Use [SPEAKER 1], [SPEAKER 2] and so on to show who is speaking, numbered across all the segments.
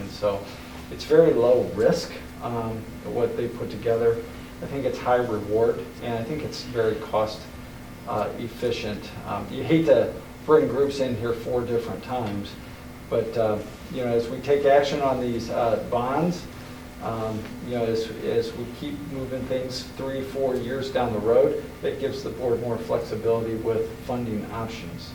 [SPEAKER 1] And so it's very low risk, um, what they put together. I think it's high reward, and I think it's very cost uh, efficient. Um, You hate to bring groups in here four different times, but, uh, you know, as we take action on these uh, bonds, um, you know, as, as we keep moving things three, four years down the road, that gives the board more flexibility with funding options.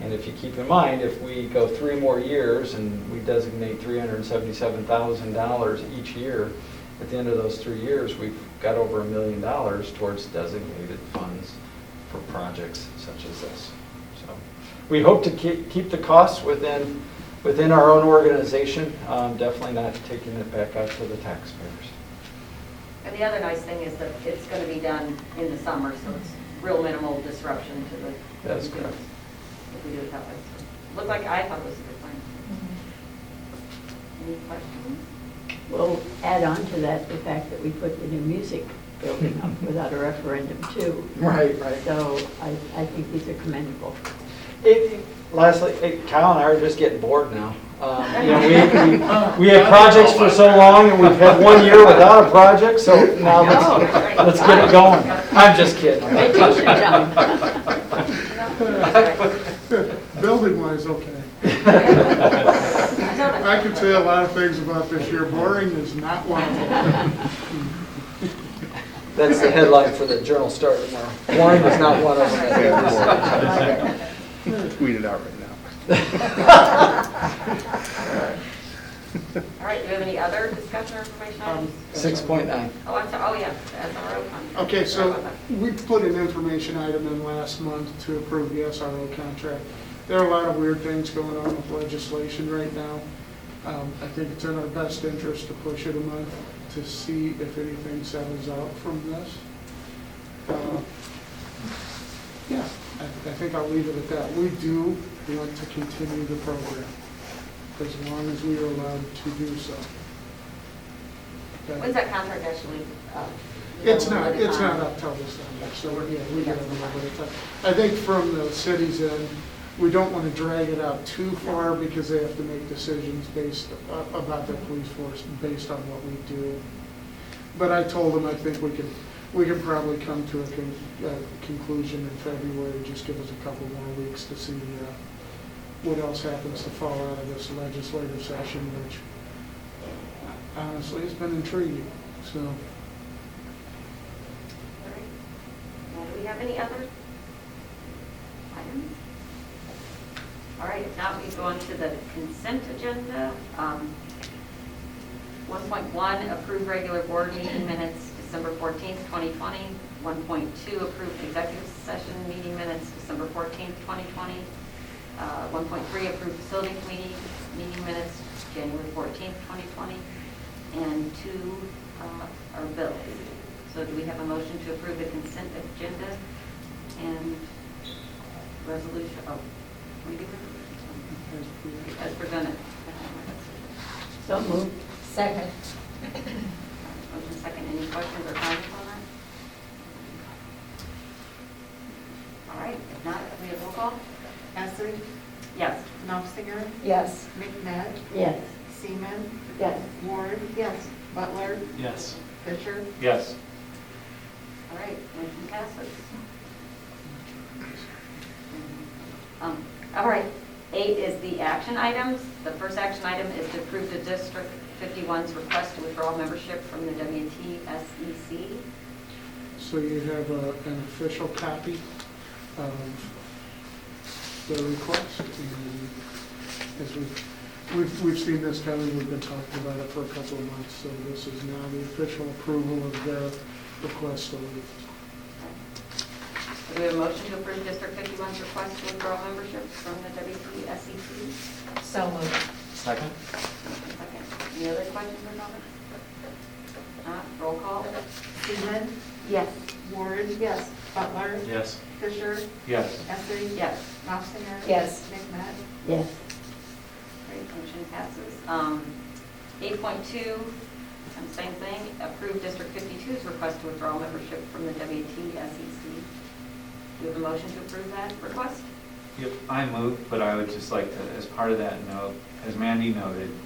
[SPEAKER 1] And if you keep in mind, if we go three more years and we designate $377,000 each year, at the end of those three years, we've got over a million dollars towards designated funds for projects such as this. So we hope to keep, keep the costs within, within our own organization, um, definitely not taking it back out to the taxpayers.
[SPEAKER 2] And the other nice thing is that it's going to be done in the summer, so it's real minimal disruption to the.
[SPEAKER 1] That's correct.
[SPEAKER 2] If we do it that way. So, Looked like, I thought it was a good plan. Any questions?
[SPEAKER 3] We'll add on to that the fact that we put the new music building up without a referendum too.
[SPEAKER 1] Right, right.
[SPEAKER 3] So I, I think these are commendable.
[SPEAKER 1] It, lastly, eh, Kyle and I are just getting bored now. Um, You know, we, we, we had projects for so long, and we've had one year without a project, so now
[SPEAKER 2] No, right.
[SPEAKER 1] let's, let's get it going. I'm just kidding.
[SPEAKER 3] Vacation time.
[SPEAKER 4] Building wise, okay. I
[SPEAKER 2] I
[SPEAKER 4] could say a lot of things about this year. Boring is not one of them.
[SPEAKER 1] That's the headline for the Journal Star tomorrow. Warren is not one of them.
[SPEAKER 5] Tweet it out right now.
[SPEAKER 2] All right, do you have any other discussion or information items?
[SPEAKER 4] Um,
[SPEAKER 1] Six point nine.
[SPEAKER 2] Oh, I'm sorry, oh, yeah, SRO contract.
[SPEAKER 4] Okay,
[SPEAKER 2] Sorry
[SPEAKER 4] so
[SPEAKER 2] about that.
[SPEAKER 4] we put an information item in last month to approve the SRO contract. There are a lot of weird things going on with legislation right now. Um, I think it's in our best interest to push it a month to see if anything settles out from this. Uh, Yeah, I I think I'll leave it at that. We do want to continue the program as long as we are allowed to do so. Okay?
[SPEAKER 2] When's that contract actually? uh,
[SPEAKER 4] It's
[SPEAKER 2] available
[SPEAKER 4] not,
[SPEAKER 2] at the
[SPEAKER 4] it's
[SPEAKER 2] time?
[SPEAKER 4] not up till December, so we're, yeah, we got a little bit of time. I think from the city's end, we don't want to drag it out too far because they have to make decisions based, a- about their police force, based on what we do. But I told them, I think we could, we could probably come to a con- a conclusion in February, just give us a couple more weeks to see uh, what else happens to fall out of this legislative session, which honestly has been intriguing, so.
[SPEAKER 2] All right. Well, do we have any other items? All right, if not, we go on to the consent agenda. Um, 1.1, approve regular board meeting minutes December 14th, 2020. 1.2, approve executive session meeting minutes December 14th, 2020. Uh, 1.3, approve facility committee meeting minutes January 14th, 2020. And two uh, are bills. So do we have a motion to approve the consent agenda and resolution, oh, we do it as presented?
[SPEAKER 3] So moved.
[SPEAKER 6] Second.
[SPEAKER 2] Motion second, any questions or comments on that? All right, if not, we have roll call?
[SPEAKER 7] Essing,
[SPEAKER 2] Yes.
[SPEAKER 7] Knopfinger,
[SPEAKER 6] Yes.
[SPEAKER 7] McNabb,
[SPEAKER 3] Yes.
[SPEAKER 7] Seaman,
[SPEAKER 3] Yes.
[SPEAKER 7] Ward. Yes. Butler,
[SPEAKER 1] Yes.
[SPEAKER 7] Fisher.
[SPEAKER 1] Yes.
[SPEAKER 2] All right, motion passes. Um, All right, eight is the action items. The first action item is to approve the District 51's request to withdraw membership from the WTSEC.
[SPEAKER 4] So you have uh, an official copy of the request. and As we've, we've, we've seen this coming, we've been talking about it for a couple of months, so this is now the official approval of their request to leave.
[SPEAKER 2] Do we have a motion to approve District 51's request to withdraw membership from the E WTSEC?
[SPEAKER 6] So moved.
[SPEAKER 1] Second?
[SPEAKER 2] Second. Any other questions or comments? Not, roll call?
[SPEAKER 7] Seaman,
[SPEAKER 2] Yes.
[SPEAKER 7] Ward. Yes. Butler.
[SPEAKER 1] Yes.
[SPEAKER 7] Fisher,
[SPEAKER 1] Yes.
[SPEAKER 7] Essing.
[SPEAKER 2] Yes.
[SPEAKER 7] Knopfinger.
[SPEAKER 6] Yes.
[SPEAKER 7] McNabb.
[SPEAKER 3] Yes.
[SPEAKER 2] Great, motion passes. Um, 8.2, um, same thing, approve District 52's request to withdraw membership from the WTSEC. E Do you have a motion to approve that request?
[SPEAKER 8] Yep, I move, but I would just like to, as part of that note, as Mandy noted,